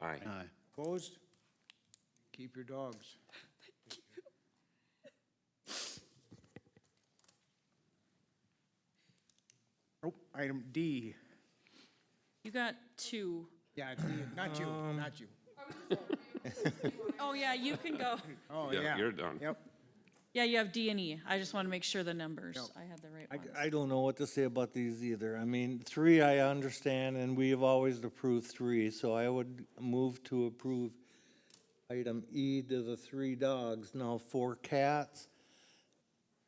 Aye. Aye. Opposed? Keep your dogs. Oh, item D. You got two. Yeah, D, not you, not you. Oh, yeah, you can go. Oh, Yeah, yeah. you're done. Yep. Yeah, you have D and E. I just want to make sure the numbers, Yep. I had the right I, ones. I don't know what to say about these either. I mean, three I understand, and we have always approved three, so I would move to approve item E to the three dogs, now four cats.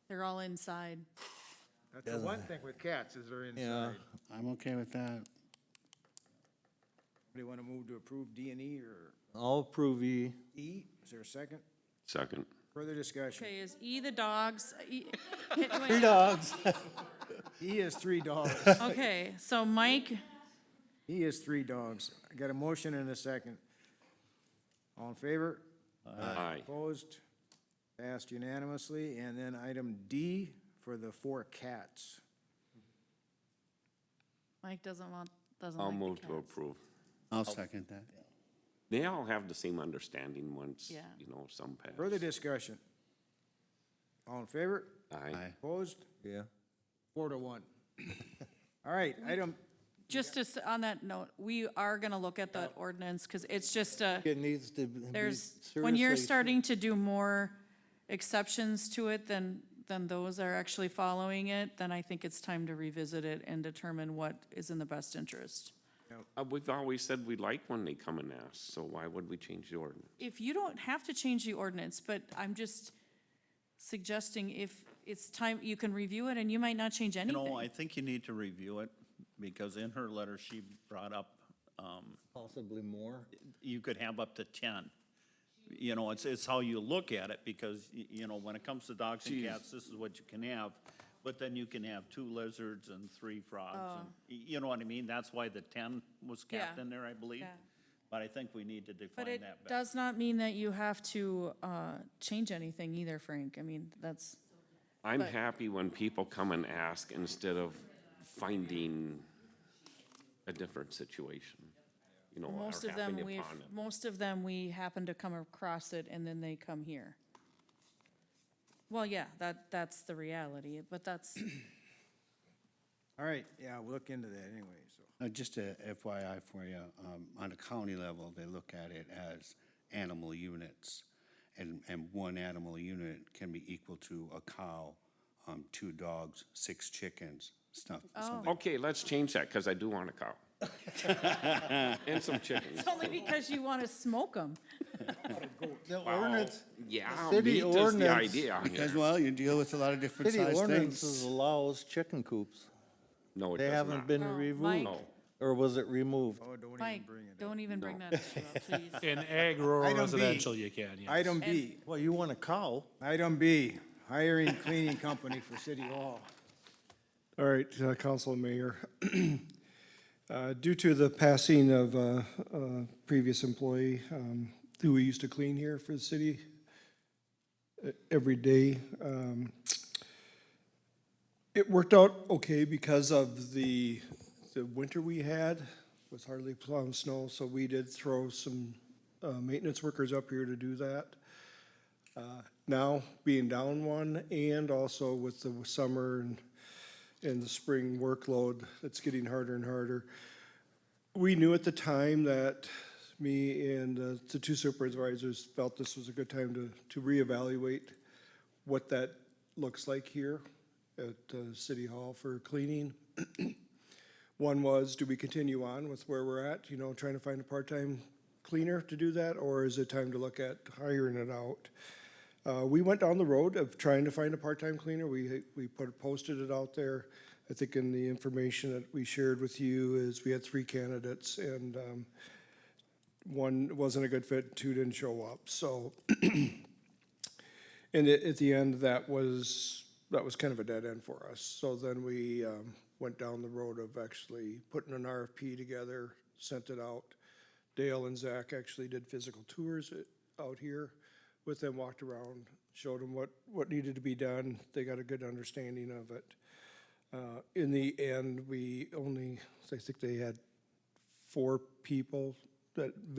They're all inside. That's the one thing with cats is they're Yeah, inside. I'm okay with that. Do you want to move to approve D and E or I'll approve E. E? Is there a second? Second. Further discussion? Okay, is E the dogs? E- Three dogs. E is three dogs. Okay, so Mike, E is three dogs. I got a motion and a second. All in favor? Aye. Opposed? Passed unanimously. And then item D for the four cats. Mike doesn't want, doesn't like I'll the move to cats. approve. Oh. I'll second that. They all have the same understanding once, Yeah. you know, some pass. Further discussion? All in favor? Aye. Aye. Opposed? Yeah. Four to one. All right, item, Just to s on that note, we are gonna look at that ordinance, because it's just a, It needs to be there's, when you're seriously- starting to do more exceptions to it than, than those are actually following it, then I think it's time to revisit it and determine what is in the best interest. Uh, We've always said we like when they come and ask, so why would we change the ordinance? if you don't have to change the ordinance, but I'm just suggesting if it's time, you can review it and you might not change You know, anything. I think you need to review it, because in her letter, she brought up, um, Possibly more. you could have up to ten. You know, it's, it's how you look at it, because, y- you know, when it comes to dogs and cats, this is what you can have. But then you can have two lizards and three frogs, and, y- you know what I mean? That's why the ten was kept Oh. Yeah. in there, I believe. Yeah. But I think we need to But define it that better. does not mean that you have to, uh, change anything either, Frank. I mean, that's, I'm But- happy when people come and ask instead of finding a different situation, you know, most or of them, happening we've, upon it. most of them, we happen to come across it and then they come here. Well, yeah, that, that's the reality, but that's, all right, yeah, we'll look into that anyway, so. Uh, Just a FYI for you, um, on the county level, they look at it as animal units. And, and one animal unit can be equal to a cow, um, two dogs, six chickens, stuff. Oh. something. Okay, let's change that, because I do want a cow. And some chickens. it's only because you want to smoke them. The ordinance, Yeah, city meat is the ordinance- idea Because, here. well, you deal with a lot of different city sized ordinances things. allows chicken coops. No, it They does haven't not. been No, removed, Mike. or was it removed? Oh, don't even Mike, bring it up. don't even bring that issue up, please. In ag rural Item B. residential, you can, yes. Item B, Well, you want a cow? item B, hiring cleaning company for City Hall. All right, uh, Council and Mayor. Uh, Due to the passing of uh, a previous employee um, who we used to clean here for the city uh, every day, um, it worked out okay because of the, the winter we had with hardly plowed snow, so we did throw some uh, maintenance workers up here to do that Uh, now being down one and also with the summer and, and the spring workload, it's getting harder and harder. We knew at the time that me and uh, the two supervisors felt this was a good time to, to reevaluate what that looks like here at uh, City Hall for cleaning. One was, do we continue on with where we're at, you know, trying to find a part-time cleaner to do that? Or is it time to look at hiring it out? Uh, we went down the road of trying to find a part-time cleaner. We, we put, posted it out there. I think in the information that we shared with you is we had three candidates and, um, one wasn't a good fit, two didn't show up, so. And at, at the end, that was, that was kind of a dead end for us. So then we, um, went down the road of actually putting an RFP together, sent it out. Dale and Zach actually did physical tours i- out here with them, walked around, showed them what, what needed to be done. They got a good understanding of it. Uh, in the end, we only, I think they had four people that